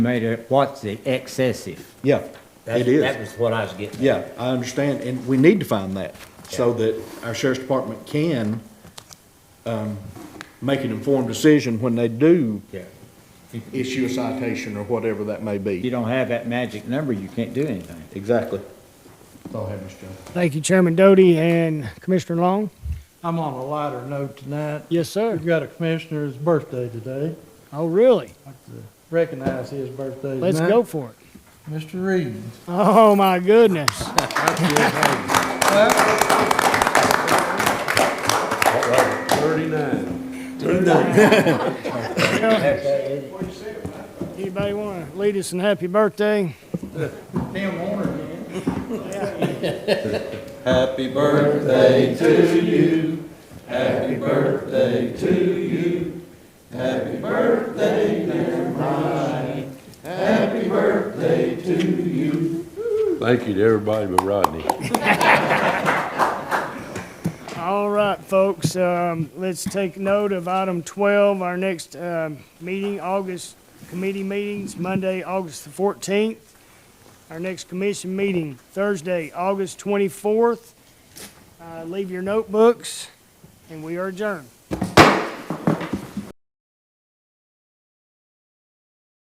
made it, what's the excessive? Yeah, That's- it is. That was what I was getting at. Yeah, I understand, and we need to find that, so that our sheriff's department can, um, make an informed decision when they do Yeah. issue a citation or whatever that may If you be. don't have that magic number, you can't do anything. Exactly. That's all I have, Mr. Jones. Thank you, Chairman Doty and Commissioner Long. I'm on a lighter note tonight. Yes, sir. We've got a commissioner's birthday today. Oh, really? I'd like to Recognize his birthday tonight. Let's go for it. Mr. Reed. Oh, my goodness. Thirty-nine. Anybody want to lead us in happy birthday? Happy birthday to you. Happy birthday to you. Happy birthday, dear Ronnie. Happy birthday to you. Thank you to everybody but Rodney. All right, folks, um, let's take note of item 12, our next um, meeting, August, committee meetings, Monday, August the 14th. Our next commission meeting, Thursday, August 24th. Uh, Leave your notebooks, and we are adjourned.